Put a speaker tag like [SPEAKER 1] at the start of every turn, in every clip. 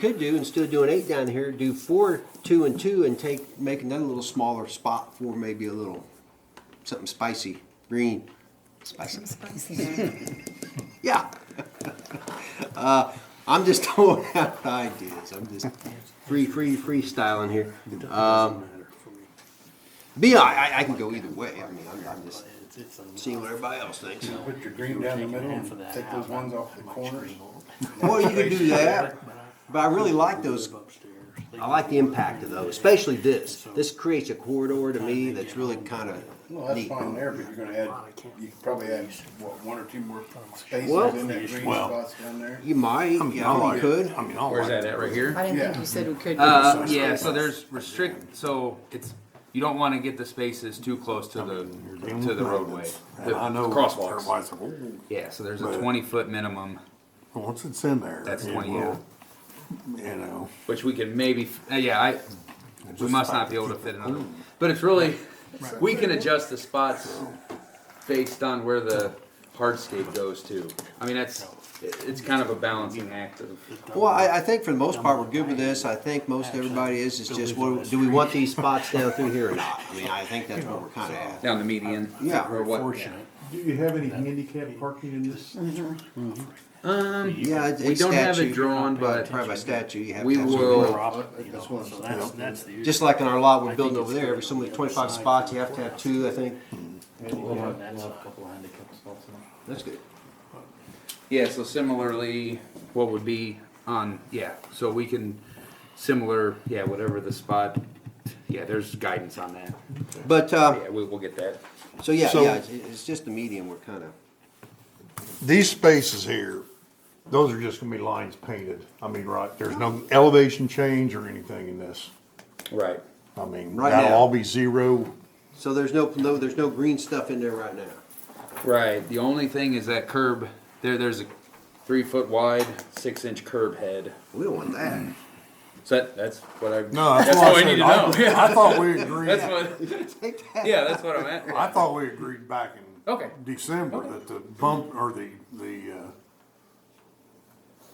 [SPEAKER 1] could do, instead of doing eight down here, do four, two and two and take, make another little smaller spot for maybe a little, something spicy, green, spicy.
[SPEAKER 2] Spicy.
[SPEAKER 1] Yeah. Uh, I'm just throwing out ideas. I'm just free, free, freestyling here. Um, Bi, I, I can go either way. I mean, I'm, I'm just seeing what everybody else thinks.
[SPEAKER 3] Put your green down the middle and take those ones off the corners.
[SPEAKER 1] Well, you could do that, but I really like those. I like the impact of those, especially this. This creates a corridor to me that's really kind
[SPEAKER 3] Well,
[SPEAKER 1] of
[SPEAKER 3] that's
[SPEAKER 1] neat.
[SPEAKER 3] fine there, but you're gonna add, you could probably add, what, one or two more spaces
[SPEAKER 1] Well-
[SPEAKER 3] in that green
[SPEAKER 4] Well-
[SPEAKER 3] spots down there?
[SPEAKER 1] You might, yeah, you could.
[SPEAKER 4] I mean, I like
[SPEAKER 5] Where's that
[SPEAKER 4] it.
[SPEAKER 5] at, right here?
[SPEAKER 2] I didn't think
[SPEAKER 3] Yeah.
[SPEAKER 2] you said we could.
[SPEAKER 5] Uh, yeah, so there's restrict, so it's, you don't wanna get the spaces too close to the, to the roadway,
[SPEAKER 4] And
[SPEAKER 5] the
[SPEAKER 4] I know
[SPEAKER 5] crosswalks.
[SPEAKER 4] everybody's like, "Ooh."
[SPEAKER 5] Yeah, so there's a
[SPEAKER 4] But-
[SPEAKER 5] twenty foot minimum,
[SPEAKER 4] Once it's in there.
[SPEAKER 5] That's
[SPEAKER 4] it
[SPEAKER 5] 20,
[SPEAKER 4] will, You know.
[SPEAKER 5] which we can maybe, uh, yeah, I, we
[SPEAKER 4] just
[SPEAKER 5] must
[SPEAKER 4] like
[SPEAKER 5] not be
[SPEAKER 4] to
[SPEAKER 5] able to
[SPEAKER 4] keep
[SPEAKER 5] fit
[SPEAKER 4] it
[SPEAKER 5] another.
[SPEAKER 4] clean.
[SPEAKER 5] But it's really, we can adjust the spots based on where the hardscape goes to. I mean, that's, it- it's kind of a balancing act of,
[SPEAKER 1] Well, I, I think for the most part, we're good with this. I think most everybody is, is just, what, do we want these spots down through here or not? I mean, I think that's what we're kinda at.
[SPEAKER 5] down the median.
[SPEAKER 1] Yeah.
[SPEAKER 5] Or what,
[SPEAKER 4] Fortunate.
[SPEAKER 6] Do you have any handicap parking in this?
[SPEAKER 1] Yeah, it's
[SPEAKER 5] we
[SPEAKER 1] it's
[SPEAKER 5] don't have it
[SPEAKER 1] statute.
[SPEAKER 5] drawn,
[SPEAKER 1] By-
[SPEAKER 5] but
[SPEAKER 1] Probably by statute, you have
[SPEAKER 5] we
[SPEAKER 1] to have. some-
[SPEAKER 5] will-
[SPEAKER 1] Just like in our lot we're building over there, every so many twenty-five spots, you have to have two, I think.
[SPEAKER 7] We'll have, we'll have a couple of handicap spots in it.
[SPEAKER 1] That's good.
[SPEAKER 5] Yeah, so similarly, what would be on, yeah, so we can, similar, yeah, whatever the spot, yeah, there's guidance on that.
[SPEAKER 1] But, uh,
[SPEAKER 5] Yeah, we, we'll get that.
[SPEAKER 1] so yeah,
[SPEAKER 4] So-
[SPEAKER 1] yeah, it's, it's just the medium we're kinda,
[SPEAKER 4] These spaces here, those are just gonna be lines painted. I mean, right, there's no elevation change or anything in this.
[SPEAKER 5] Right.
[SPEAKER 4] I mean,
[SPEAKER 1] Right
[SPEAKER 4] that'll
[SPEAKER 1] now.
[SPEAKER 4] all be zero.
[SPEAKER 1] so there's no, no, there's no green stuff in there right now.
[SPEAKER 5] Right, the only thing is that curb, there, there's a three foot wide, six inch curb head.
[SPEAKER 1] We don't want that.
[SPEAKER 5] So that, that's what I,
[SPEAKER 4] No, that's
[SPEAKER 5] that's
[SPEAKER 4] what
[SPEAKER 5] all
[SPEAKER 4] I
[SPEAKER 5] I need
[SPEAKER 4] said.
[SPEAKER 5] to know.
[SPEAKER 4] I-
[SPEAKER 5] Yeah,
[SPEAKER 4] I thought we agreed.
[SPEAKER 5] That's what,
[SPEAKER 1] Take that.
[SPEAKER 5] yeah, that's what I'm at.
[SPEAKER 4] I thought we agreed back in
[SPEAKER 5] Okay.
[SPEAKER 4] December that the bump, or the, the, uh,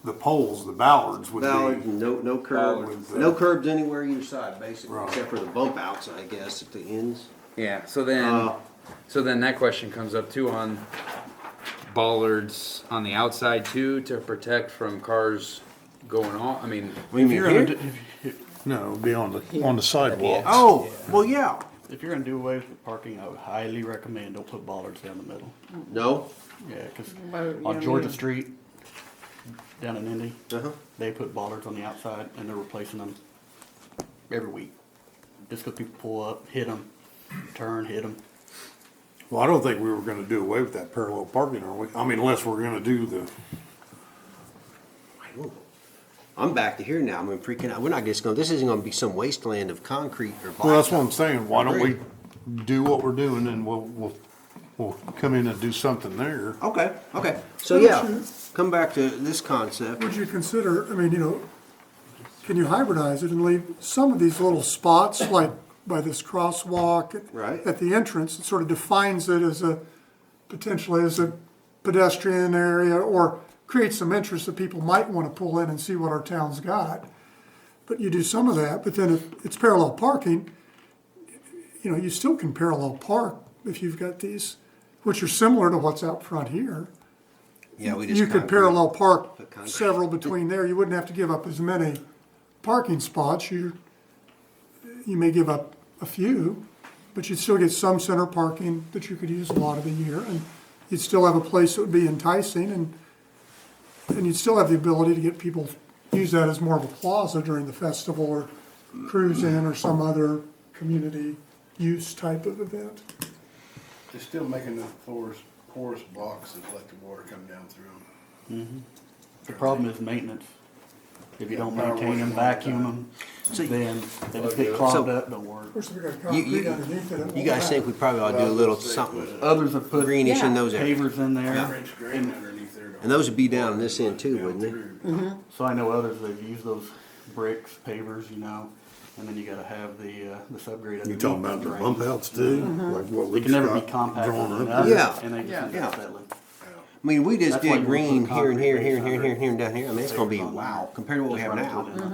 [SPEAKER 4] the poles, the ballards would
[SPEAKER 1] Valid,
[SPEAKER 4] be,
[SPEAKER 1] no, no curb,
[SPEAKER 4] Valid.
[SPEAKER 1] no curbs anywhere either side, basically,
[SPEAKER 4] Right.
[SPEAKER 1] except for the bump outs, I guess, at the ends.
[SPEAKER 5] Yeah, so then,
[SPEAKER 1] Uh,
[SPEAKER 5] so then that question comes up too on bollards on the outside too, to protect from cars going off, I mean,
[SPEAKER 1] What do you
[SPEAKER 7] If
[SPEAKER 1] mean
[SPEAKER 7] you're
[SPEAKER 1] here?
[SPEAKER 7] gonna, do-
[SPEAKER 4] no, it'd be on the, on the sidewalks.
[SPEAKER 1] Oh, well, yeah.
[SPEAKER 7] if you're gonna do away with parking, I would highly recommend don't put bollards down the middle.
[SPEAKER 1] No?
[SPEAKER 7] Yeah, cause
[SPEAKER 2] Well, you know,
[SPEAKER 7] on Georgia
[SPEAKER 2] you-
[SPEAKER 7] Street, down in Indy,
[SPEAKER 1] Uh-huh.
[SPEAKER 7] they put bollards on the outside and they're replacing them every week. Just 'cause people pull up, hit them, turn, hit them.
[SPEAKER 4] Well, I don't think we were gonna do away with that parallel parking, are we? I mean, unless we're gonna do the,
[SPEAKER 1] I'm back to here now. I'm freaking out. We're not just gonna, this isn't gonna be some wasteland of concrete or
[SPEAKER 4] well, that's what
[SPEAKER 1] blacktop.
[SPEAKER 4] I'm saying, why don't we
[SPEAKER 1] Agreed.
[SPEAKER 4] do what we're doing and we'll, we'll, we'll come in and do something there.
[SPEAKER 1] Okay, okay. So, yeah, come back to this concept.
[SPEAKER 8] Would you consider, I mean, you know, can you hybridize it and leave some of these little spots, like by this crosswalk? at-
[SPEAKER 1] Right.
[SPEAKER 8] At the entrance, it sort of defines it as a, potentially as a pedestrian area, or creates some interest that people might wanna pull in and see what our town's got. But you do some of that, but then if it's parallel parking, you know, you still can parallel park if you've got these, which are similar to what's out front here.
[SPEAKER 1] Yeah, we just.
[SPEAKER 8] You could
[SPEAKER 1] concrete.
[SPEAKER 8] parallel park
[SPEAKER 1] Put concrete.
[SPEAKER 8] several between there, you wouldn't have to give up as many parking spots, you, you may give up a few, but you'd still get some center parking that you could use a lot of the year, and you'd still have a place that would be enticing, and, and you'd still have the ability to get people, use that as more of a plaza during the festival, or cruise in, or some other community use type of event.
[SPEAKER 3] They're still making the porous, porous blocks that let the water come down through them.
[SPEAKER 7] The problem is maintenance. If you don't
[SPEAKER 3] power
[SPEAKER 7] maintain them,
[SPEAKER 3] washing all the
[SPEAKER 7] vacuum them,
[SPEAKER 1] So-
[SPEAKER 7] then they just get clogged up, don't work.
[SPEAKER 8] Of course, we got
[SPEAKER 1] You- you-
[SPEAKER 8] concrete underneath it. it
[SPEAKER 1] You
[SPEAKER 8] won't
[SPEAKER 1] guys think
[SPEAKER 8] matter.
[SPEAKER 1] we probably ought to do a little something
[SPEAKER 7] Others have put
[SPEAKER 1] greenish in
[SPEAKER 2] Yeah.
[SPEAKER 1] those areas.
[SPEAKER 7] pavers in there,
[SPEAKER 3] French grain underneath there. to
[SPEAKER 1] And those would be down in this end too,
[SPEAKER 3] down
[SPEAKER 1] wouldn't they?
[SPEAKER 3] through.
[SPEAKER 7] so I know others, they've used those bricks, pavers, you know, and then you gotta have the, uh, the subgrade underneath.
[SPEAKER 4] You talking about the
[SPEAKER 7] right?
[SPEAKER 4] bump outs too? Like what
[SPEAKER 7] They
[SPEAKER 4] we
[SPEAKER 7] Mm-hmm. can never be
[SPEAKER 4] got
[SPEAKER 7] compacted
[SPEAKER 4] drawn up
[SPEAKER 7] enough,
[SPEAKER 4] here?
[SPEAKER 1] Yeah.
[SPEAKER 7] and they just end
[SPEAKER 1] Yeah.
[SPEAKER 7] up settling.
[SPEAKER 1] I mean, we just
[SPEAKER 7] That's why
[SPEAKER 1] did
[SPEAKER 7] you wanna put
[SPEAKER 1] green here and here,
[SPEAKER 7] concrete
[SPEAKER 1] here and here, and
[SPEAKER 7] base
[SPEAKER 1] here and here and down here. I mean, it's gonna be
[SPEAKER 7] Concrete.
[SPEAKER 1] wow compared to what we
[SPEAKER 7] Just
[SPEAKER 1] have
[SPEAKER 7] right up to
[SPEAKER 1] now.
[SPEAKER 7] it.